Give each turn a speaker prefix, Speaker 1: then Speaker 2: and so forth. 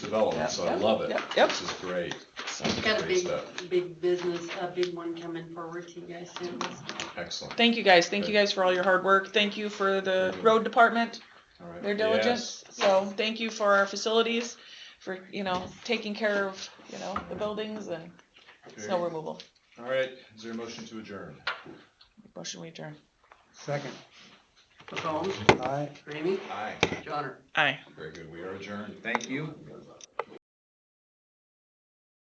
Speaker 1: development, so I
Speaker 2: Yep,
Speaker 1: love it.
Speaker 2: yep, yep.
Speaker 1: This is great.
Speaker 3: Got a
Speaker 1: Great
Speaker 3: big,
Speaker 1: stuff.
Speaker 3: big business, a big one coming forward to you guys soon.
Speaker 1: Excellent.
Speaker 2: Thank you guys. Thank you guys for all your hard work. Thank you for the road department,
Speaker 1: All right.
Speaker 2: their diligence.
Speaker 1: Yes.
Speaker 2: So thank you for our facilities, for, you know, taking care of, you know, the buildings and snow
Speaker 1: Very-
Speaker 2: removal.
Speaker 1: All right, is there a motion to adjourn?
Speaker 2: Motion we adjourn.
Speaker 4: Second,
Speaker 3: McCombs,
Speaker 4: aye.
Speaker 3: Ramey,
Speaker 1: Aye,
Speaker 3: Johnner.
Speaker 2: Aye.
Speaker 1: very good, we are adjourned, thank you.